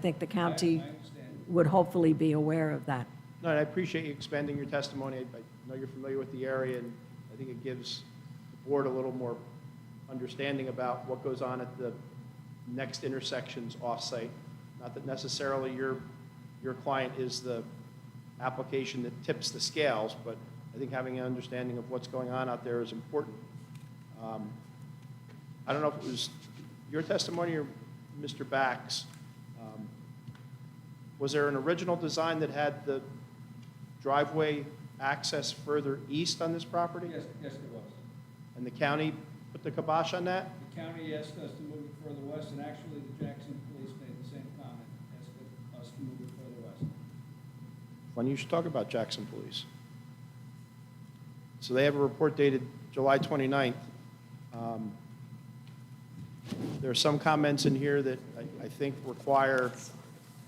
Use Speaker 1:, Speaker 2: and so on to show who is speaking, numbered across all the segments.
Speaker 1: I think the county would hopefully be aware of that.
Speaker 2: No, and I appreciate you expending your testimony. I I know you're familiar with the area, and I think it gives the board a little more understanding about what goes on at the next intersections off-site. Not that necessarily your, your client is the application that tips the scales, but I think having an understanding of what's going on out there is important. Um, I don't know if it was your testimony or Mr. Bax. um, was there an original design that had the driveway access further east on this property?
Speaker 3: Yes, yes, there was.
Speaker 2: And the county put the kibosh on that?
Speaker 3: The county asked us to move it further west, and actually, the Jackson police made the same comment, asked us to move it further west.
Speaker 2: Funny you should talk about Jackson Police. So they have a report dated July 29th. Um, There are some comments in here that I- I think require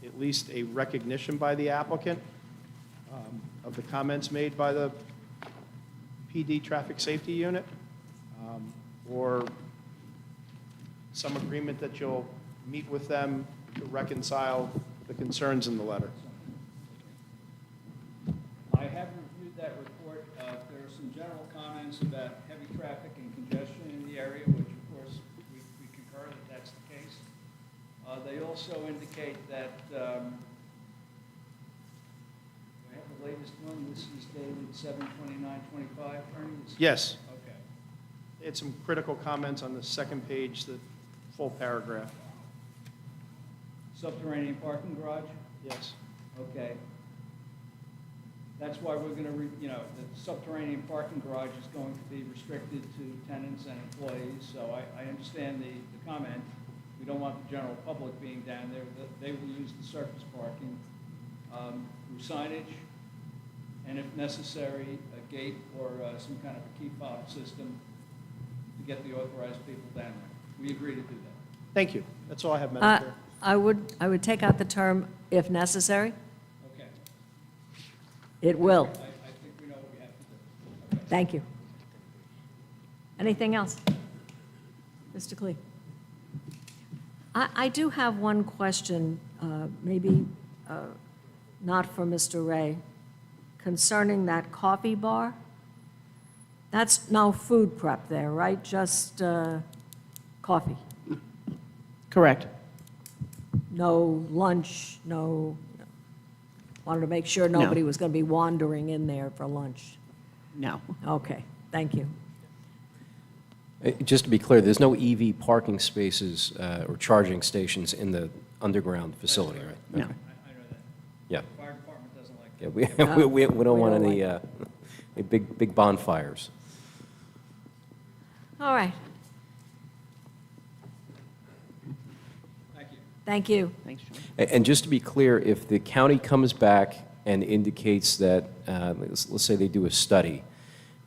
Speaker 2: at least a recognition by the applicant um, of the comments made by the PD Traffic Safety Unit, um, or some agreement that you'll meet with them to reconcile the concerns in the letter.
Speaker 3: I have reviewed that report. Uh, There are some general comments about heavy traffic and congestion in the area, which of course, we we concur that that's the case. Uh, They also indicate that, um, do I have the latest one, this is dated seven twenty-nine twenty-five, Ernie? Is-
Speaker 2: Yes?
Speaker 3: Okay.
Speaker 2: They had some critical comments on the second page, the full paragraph.
Speaker 3: Subterranean parking garage?
Speaker 2: Yes.
Speaker 3: Okay. That's why we're gonna, re- you know, the subterranean parking garage is going to be restricted to tenants and employees, so I, I understand the, the comment. We don't want the general public being down there, that they will use the surface parking, um, through signage, and if necessary, a gate or, uh, some kind of a key fob system to get the authorized people down there. We agree to do that.
Speaker 2: Thank you. That's all I have,
Speaker 1: I
Speaker 2: Madam Chair.
Speaker 1: Uh, I would, I would take out the term "if necessary."
Speaker 3: Okay.
Speaker 1: It will.
Speaker 3: I, I think we know what we have to do. Okay.
Speaker 1: Thank you. Anything else? Mr. Klee? I, I do have one question, uh, maybe uh, not for Mr. Ray, concerning that coffee bar. That's no food prep there, right? Just uh, coffee?
Speaker 4: Correct.
Speaker 1: No lunch, no, wanted to make sure
Speaker 4: No.
Speaker 1: nobody was going to be wandering in there for lunch.
Speaker 4: No.
Speaker 1: Okay, thank you.
Speaker 5: Uh, Just to be clear, there's no EV parking spaces uh, or charging stations in the underground facility, right?
Speaker 4: No.
Speaker 5: Okay.
Speaker 3: I, I know that.
Speaker 5: Yeah.
Speaker 3: Fire department doesn't like that.
Speaker 5: Yeah, we,
Speaker 1: Yeah.
Speaker 5: we- we we
Speaker 1: We
Speaker 5: don't want
Speaker 1: don't
Speaker 5: any, uh, any big, big bonfires.
Speaker 1: All right,
Speaker 3: Thank you.
Speaker 1: thank you.
Speaker 4: Thanks, John.
Speaker 5: A- And just to be clear, if the county comes back and indicates that, uh, let's let's say they do a study,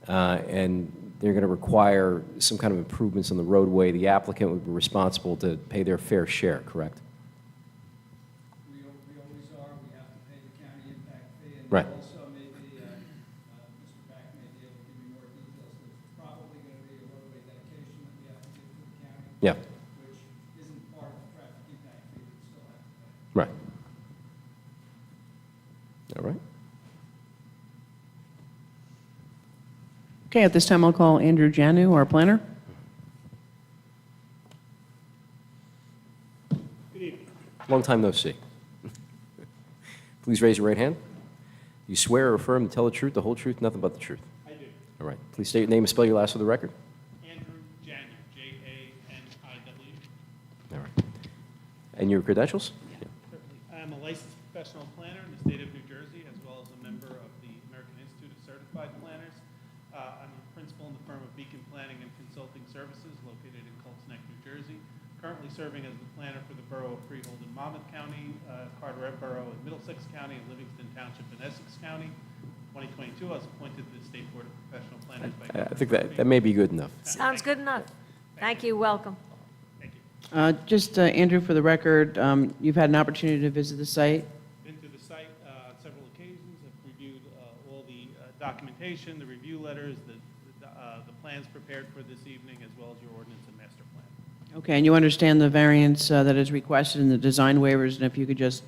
Speaker 5: uh, and they're going to require some kind of improvements on the roadway, the applicant would be responsible to pay their fair share, correct?
Speaker 3: We, al- we always are, we have to pay the county impact fee. and
Speaker 5: Right.
Speaker 3: Also, maybe, uh, uh, Mr. Back may be able to give you more details, there's probably gonna be a roadway dedication that we have to give to the county.
Speaker 5: Yeah.
Speaker 3: Which isn't part of the traffic impact fee, we still have to pay.
Speaker 5: Right. All right.
Speaker 4: Okay, at this time, I'll call Andrew Janu, our planner.
Speaker 5: Long time no see. Please raise your right hand. Do you swear or affirm to tell the truth, the whole truth, nothing but the truth?
Speaker 6: I do.
Speaker 5: All right. Please state your name and spell your last for the record.
Speaker 6: Andrew Janu, J-A-N-I-W.
Speaker 5: All right. And your credentials?
Speaker 6: Certainly. I am a licensed professional planner in the state of New Jersey, as well as a member of the American Institute of Certified Planners. Uh, I'm a principal in the firm of Beacon Planning and Consulting Services located in Colts Neck, New Jersey. Currently serving as the planner for the Borough of Freehold in Monmouth County, uh, Carteret Borough in Middlesex County, and Livingston Township in Essex County. 2022, I was appointed to the State Board of Professional Planners by.
Speaker 5: I I
Speaker 6: Governor
Speaker 5: think that,
Speaker 6: Murphy.
Speaker 5: that may be good enough.
Speaker 1: Sounds good enough. Thank you, welcome.
Speaker 6: Thank you.
Speaker 4: Uh, Just, uh, Andrew, for the record, um, you've had an opportunity to visit the site.
Speaker 6: Been to the site uh, on several occasions, have reviewed uh, all the uh, documentation, the review letters, the, the, uh, the plans prepared for this evening, as well as your ordinance and master plan.
Speaker 4: Okay, and you understand the variance uh, that is requested in the design waivers, and if you could just